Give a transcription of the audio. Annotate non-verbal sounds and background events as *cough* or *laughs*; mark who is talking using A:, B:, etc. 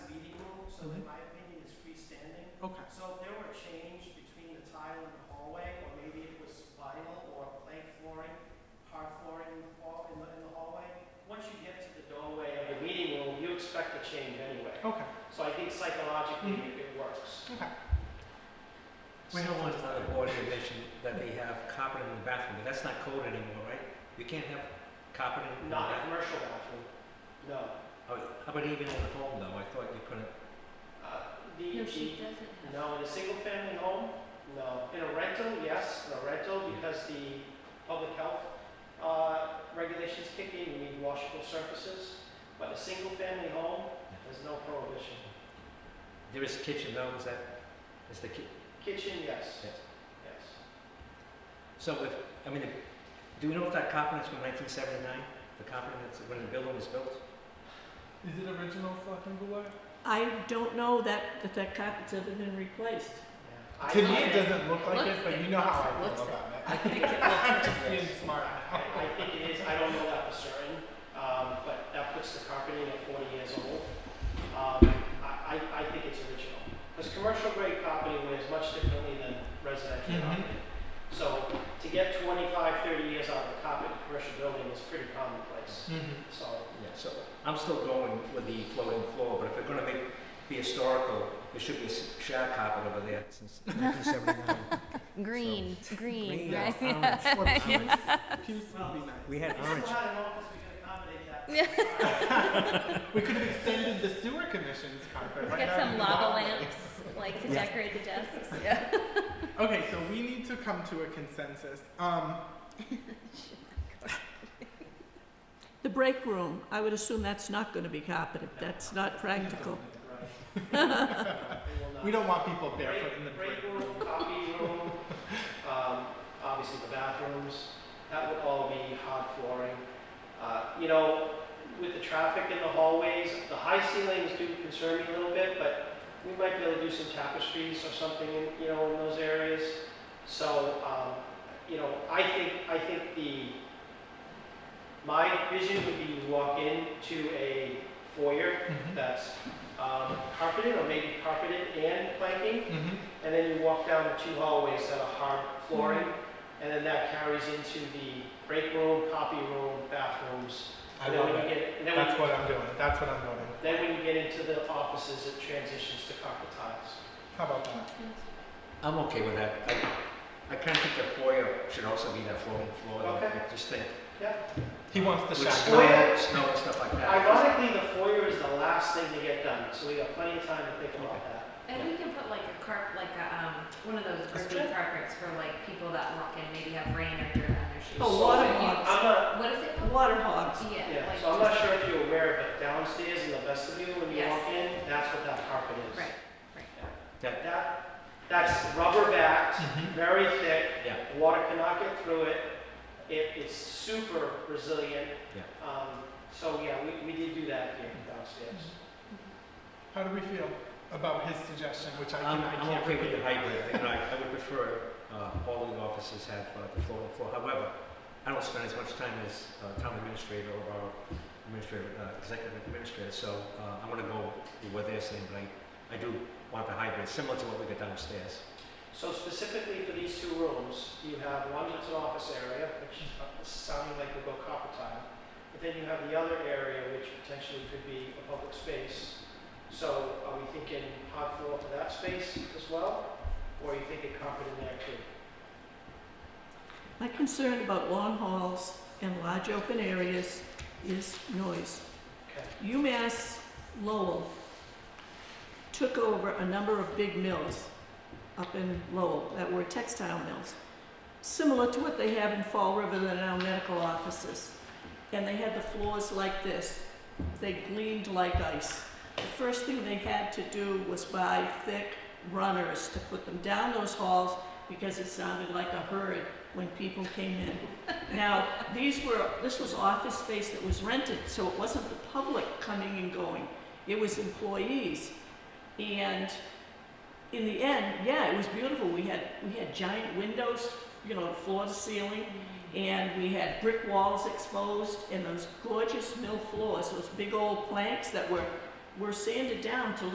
A: Okay.
B: So if there were a change between the tile and the hallway, or maybe it was vinyl or plank flooring, hard flooring in the hall- in the, in the hallway, once you get to the doorway of the meeting room, you expect a change anyway.
A: Okay.
B: So I think psychologically, it it works.
A: Okay.
C: We don't want another board condition that they have carpet in the bathroom, but that's not code anymore, right? You can't have carpet in the
B: Not a
C: bathroom. Oh,
B: commercial bathroom, no.
C: How about even in the home though? I thought you couldn't.
B: Uh, the-
D: No,
B: the-
D: she doesn't have.
B: No, in a single-family home, no. In a rental, yes, in a rental, because the public health uh, regulations kick in, you need washable surfaces. But a single-family home, there's no prohibition.
C: There is kitchen though, is that, is the ki-
B: Kitchen, yes,
C: Yes.
B: yes.
C: So if, I mean, if- do we know if that carpet is from nineteen seventy-nine? The carpet that's when the building was built?
A: Is it original fucking Goulart?
E: I don't know that, that that carpet's ever been replaced.
B: Yeah. I-
A: To me,
B: I-
A: it doesn't look like it,
D: Looks
A: but
D: good.
A: you know how *laughs* I
D: Looks
A: feel
D: it.
A: about it.
D: I think it looks,
A: Just being smart.
B: I I think it is, I don't know that for certain, um, but that puts the carpeting at 40 years old. Um, I I- I think it's original, because commercial grade carpeting wears much differently than residential
A: Mhm.
B: carpeting. So to get 25, 30 years out of the carpet in a commercial building is pretty commonplace,
A: Mm-hmm.
B: so.
C: Yeah, so I'm still going with the floating floor, but if they're gonna make, be historical, there should be a s- shag carpet over there since nineteen seventy-nine.
D: green, green,
C: Green,
D: right?
A: *laughs*
D: *laughs*
A: Or peace. Peace would be nice.
C: We had
B: We
C: orange.
B: still had an office, we could accommodate *laughs* that.
A: We could have extended the sewer commission's carpet. right
D: Get
A: out in
D: some
A: the
D: lava
A: hallway.
D: lamps, like to
C: Yeah.
D: decorate the desks, yeah.
A: Okay, so we need to come to a consensus. Um,
F: The break room, I would assume that's not gonna be carpeted, that's not practical.
B: Right. will not-
A: we don't want people barefoot
B: Break-
A: in the break room.
B: room, copy
A: *laughs*
B: room, um, obviously the bathrooms, that would all be hard flooring. Uh, you know, with the traffic in the hallways, the high ceilings do concern me a little bit, but we might be able to do some tapestries or something, in- you know, in those areas. So, um, you know, I think, I think the, my vision would be you walk into a foyer
A: Mhm.
B: that's, um, carpeted or maybe carpeted and planking,
A: Mhm.
B: and then you walk down the two hallways that are hard flooring, and then that carries into the break room, copy room, bathrooms.
A: I
B: and then
A: love
B: when you
A: it.
B: get, and then,
A: That's
B: when,
A: what I'm doing. That's what I'm doing.
B: then when you get into the offices, it transitions to carpet tiles.
A: How about that?
C: I'm okay with that. I, I kind of think the foyer should also be that floating floor. though.
B: Okay.
C: I Just think.
A: He wants the
C: With
A: shag.
C: snow,
A: carpet.
B: Foyer?
C: snow and stuff like that.
B: Ironically, the foyer is the last thing to get done, so we got plenty of time to think about that.
G: And we can put like a carp, like a, um, one of those
A: strip?
G: grippy carpets for like people that walk in, maybe have rain or dirt on their shoes.
E: Oh,
G: So
E: water
G: you-
E: hogs.
B: I'm not,
G: What is it called?
E: Water hogs.
G: Yeah,
B: yeah,
G: like.
B: so I'm not
G: just-
B: sure if you're aware, but downstairs in the vestibule, when you
G: Yes.
B: walk in, that's what that carpet is.
G: Right.
C: That,
B: That, that's rubber backed,
A: Mhm.
B: very thick,
C: yeah.
B: Water cannot get through it. It, it's super resilient.
C: Yeah.
B: Um, so yeah, we, we did do that here downstairs.
A: How do we feel about his suggestion, which I can
C: I'm,
A: I
C: I'm
A: can't
C: okay with the
A: repeat?
C: hybrid. You know, I, I would prefer uh, all the offices have uh, the floating floor. However, I don't spend as much time as uh, town administrator or our administrator, uh, executive administrator. So uh, I'm going to go with what they're saying, but I, I do want the hybrid, similar to what we got downstairs.
B: So specifically for these two rooms, you have one that's an office area, which is sounding like we'll go copper tile. But then you have the other area, which potentially could be a public space. So are we thinking hard floor for that space as well? Or are you thinking carpet in there too?
F: My concern about long halls and large open areas is noise.
B: Okay.
F: UMass Lowell took over a number of big mills up in Lowell that were textile mills, similar to what they have in Fall River that are now medical offices. And they had the floors like this. They gleamed like ice. The first thing they had to do was buy thick runners to put them down those halls because it sounded like a herd when people came in. Now, these were, this was office space that was rented, so it wasn't the public coming and going. It was employees. And in the end, yeah, it was beautiful. We had, we had giant windows, you know, floor to ceiling, and we had brick walls exposed and those gorgeous mill floors, those big old planks that were, were sanded down to